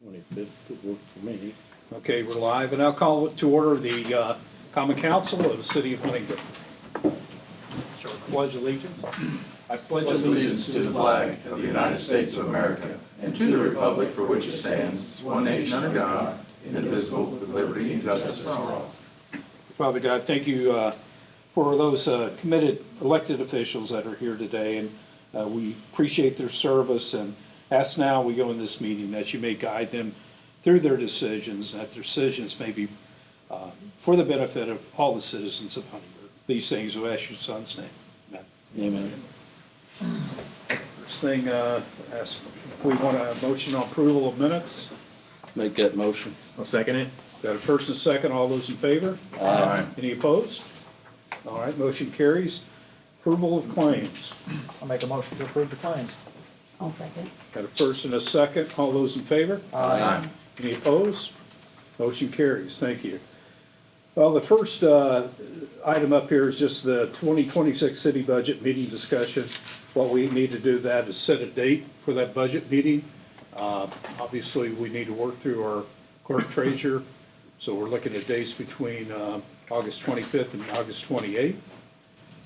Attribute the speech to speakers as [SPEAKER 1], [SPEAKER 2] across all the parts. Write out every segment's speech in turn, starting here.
[SPEAKER 1] Twenty-fifth could work for me.
[SPEAKER 2] Okay, we're live, and I'll call to order the uh, Common Council of the City of Huntington. Pledge allegiance. I pledge
[SPEAKER 3] pledge allegiance to the flag of the United States of America and to the republic for which it stands, one nation under God, indivisible, with liberty and justice for all.
[SPEAKER 2] Father God, thank you uh, for those uh, committed elected officials that are here today, and uh, we appreciate their service, and ask now, we go in this meeting, that you may guide them through their decisions, that their decisions may be uh, for the benefit of all the citizens of Huntingburg. These things we ask your son's name. Amen.
[SPEAKER 1] Amen.
[SPEAKER 2] First thing, uh, ask if we want a motion on approval of minutes.
[SPEAKER 1] Make that motion.
[SPEAKER 4] I'll second it.
[SPEAKER 2] Got a first and second, all those in favor?
[SPEAKER 3] Aye.
[SPEAKER 2] Any opposed? All right, motion carries. Approval of claims.
[SPEAKER 4] I'll make a motion to approve the claims.
[SPEAKER 5] I'll second.
[SPEAKER 2] Got a first and a second, all those in favor?
[SPEAKER 3] Aye.
[SPEAKER 2] Any opposed? Motion carries, thank you. Well, the first uh, item up here is just the 2026 city budget meeting discussion. What we need to do that is set a date for that budget meeting. Uh, Obviously, we need to work through our clerk treasurer, so we're looking at dates between uh, August 25th and August 28th.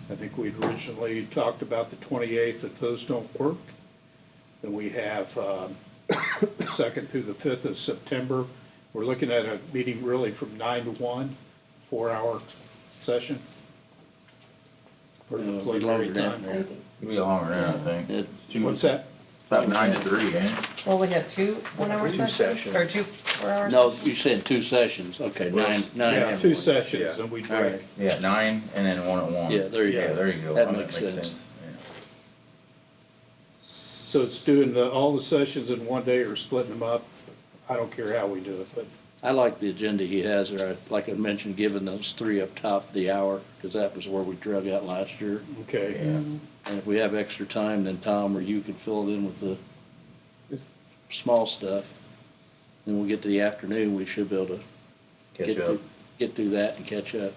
[SPEAKER 2] I think we'd originally talked about the 28th, if those don't work. Then we have um, the second through the fifth of September. We're looking at a meeting really from nine to one, four-hour session. For
[SPEAKER 1] No,
[SPEAKER 2] the
[SPEAKER 1] it'll be
[SPEAKER 2] preliminary
[SPEAKER 1] Uh, longer than
[SPEAKER 2] time.
[SPEAKER 1] that.
[SPEAKER 3] It'll be longer than I think.
[SPEAKER 1] It-
[SPEAKER 2] What's that?
[SPEAKER 3] About nine to three, ain't it?
[SPEAKER 5] Well, we have two one-hour
[SPEAKER 4] Two
[SPEAKER 5] sessions,
[SPEAKER 4] sessions.
[SPEAKER 5] or two four-hour?
[SPEAKER 1] No, you said two sessions, okay, nine, nine.
[SPEAKER 2] Yeah,
[SPEAKER 1] every
[SPEAKER 2] two
[SPEAKER 1] week.
[SPEAKER 2] sessions,
[SPEAKER 4] Yeah.
[SPEAKER 2] and we
[SPEAKER 1] All
[SPEAKER 2] break.
[SPEAKER 1] right,
[SPEAKER 3] Yeah, nine and then one at one.
[SPEAKER 1] Yeah, there you
[SPEAKER 3] Yeah,
[SPEAKER 1] go.
[SPEAKER 3] there you go.
[SPEAKER 1] That
[SPEAKER 3] Oh,
[SPEAKER 1] makes sense.
[SPEAKER 3] Yeah.
[SPEAKER 2] So it's doing the, all the sessions in one day or splitting them up. I don't care how we do it, but
[SPEAKER 1] I like the agenda he has there, I- like I mentioned, giving those three up top the hour, because that was where we drug out last year.
[SPEAKER 2] okay.
[SPEAKER 3] Yeah.
[SPEAKER 1] And if we have extra time, then Tom or you could fill it in with the small stuff. Then we'll get to the afternoon, we should be able to get
[SPEAKER 3] Catch up.
[SPEAKER 1] through, get through that and catch up.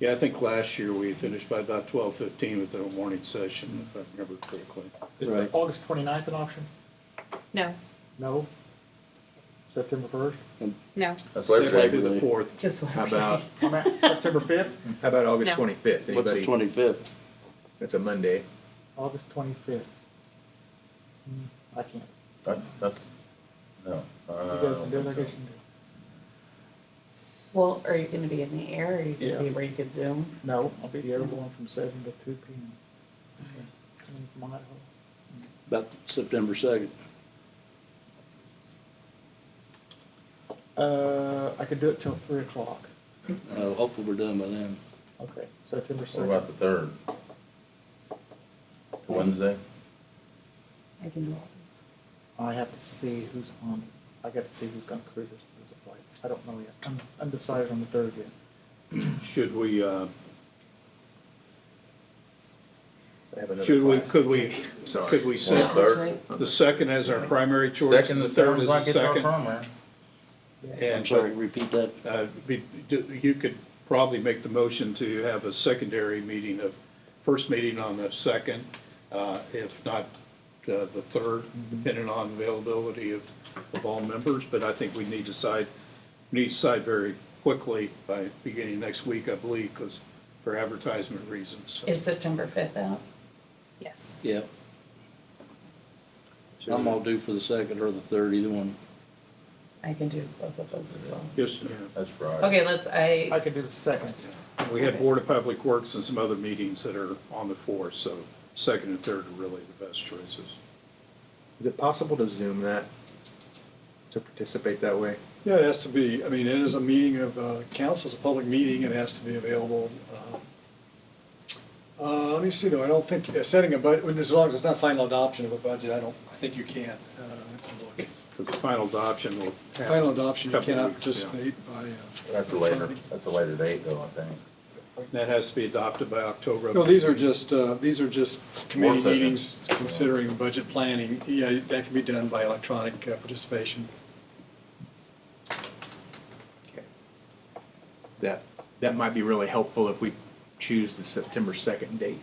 [SPEAKER 2] Yeah, I think last year we finished by about twelve fifteen with the morning session, if I remember correctly.
[SPEAKER 4] Is
[SPEAKER 1] Right.
[SPEAKER 4] August 29th an option?
[SPEAKER 5] No,
[SPEAKER 4] No. September first?
[SPEAKER 5] no,
[SPEAKER 3] That's
[SPEAKER 2] Second
[SPEAKER 3] Labor Day.
[SPEAKER 2] through the fourth.
[SPEAKER 5] just.
[SPEAKER 6] How about,
[SPEAKER 4] I'm at September fifth?
[SPEAKER 6] how about August
[SPEAKER 5] No.
[SPEAKER 6] twenty-fifth?
[SPEAKER 1] What's the
[SPEAKER 6] Anybody?
[SPEAKER 1] twenty-fifth?
[SPEAKER 6] That's a Monday.
[SPEAKER 4] August twenty-fifth. Hmm, I can't.
[SPEAKER 3] That- That's, no. uh,
[SPEAKER 4] You
[SPEAKER 3] I
[SPEAKER 4] guys
[SPEAKER 3] don't
[SPEAKER 4] can do it, I
[SPEAKER 3] think
[SPEAKER 4] guess
[SPEAKER 3] so.
[SPEAKER 4] you can do it.
[SPEAKER 5] Well, are you gonna be in the air, or are you
[SPEAKER 4] Yeah.
[SPEAKER 5] gonna be where you could zoom?
[SPEAKER 4] No, I'll be the other one from seven to two P M. Coming from Idaho.
[SPEAKER 1] About September second.
[SPEAKER 4] Uh, I could do it till three o'clock.
[SPEAKER 1] Uh, hopefully we're done by then.
[SPEAKER 4] Okay, September
[SPEAKER 3] What about
[SPEAKER 4] second.
[SPEAKER 3] the third? Wednesday?
[SPEAKER 5] I can do all this.
[SPEAKER 4] I have to see who's on this. I got to see who's gonna crew this, this flight. I don't know yet. I'm undecided on the third yet.
[SPEAKER 2] Should we, uh,
[SPEAKER 6] I have another
[SPEAKER 2] should we,
[SPEAKER 6] class.
[SPEAKER 2] could we,
[SPEAKER 6] Sorry.
[SPEAKER 2] could we set
[SPEAKER 3] Third.
[SPEAKER 2] the second as our primary choice and
[SPEAKER 3] Second
[SPEAKER 2] the
[SPEAKER 3] and
[SPEAKER 2] third
[SPEAKER 3] third
[SPEAKER 2] as
[SPEAKER 3] is
[SPEAKER 2] the
[SPEAKER 3] like it's our
[SPEAKER 2] second?
[SPEAKER 3] primary.
[SPEAKER 1] I'm
[SPEAKER 2] And,
[SPEAKER 1] sorry,
[SPEAKER 2] but,
[SPEAKER 1] repeat that.
[SPEAKER 2] uh, be- do- you could probably make the motion to have a secondary meeting of, first meeting on the second, uh, if not, uh, the third, depending on availability of, of all members, but I think we need to decide, need to decide very quickly by beginning next week, I believe, because for advertisement reasons.
[SPEAKER 5] Is September fifth out? Yes.
[SPEAKER 1] Yeah. I'm all due for the second or the third, either one.
[SPEAKER 5] I can do both of those as well.
[SPEAKER 2] Just,
[SPEAKER 3] That's Friday.
[SPEAKER 5] Okay, let's,
[SPEAKER 4] I
[SPEAKER 5] I,
[SPEAKER 4] could do the second.
[SPEAKER 2] We had Board of Public Works and some other meetings that are on the fourth, so second and third are really the best choices.
[SPEAKER 6] Is it possible to Zoom that? To participate that way?
[SPEAKER 7] Yeah, it has to be, I mean, it is a meeting of, uh, council, it's a public meeting, it has to be available. uh, Uh, let me see though, I don't think, uh, setting a budget, as long as it's not final adoption of a budget, I don't, I think you can, uh, if you look.
[SPEAKER 2] But the final adoption will happen.
[SPEAKER 7] Final adoption, you
[SPEAKER 2] Couple
[SPEAKER 7] cannot
[SPEAKER 2] weeks, yeah.
[SPEAKER 7] participate by, uh.
[SPEAKER 3] That's a later, that's a later date though, I think.
[SPEAKER 2] That has to be adopted by October.
[SPEAKER 7] No, these are just, uh, these are just committee
[SPEAKER 3] Work session.
[SPEAKER 7] meetings considering budget planning, yeah, that can be done by electronic uh, participation.
[SPEAKER 6] Okay. That, that might be really helpful if we choose the September second date.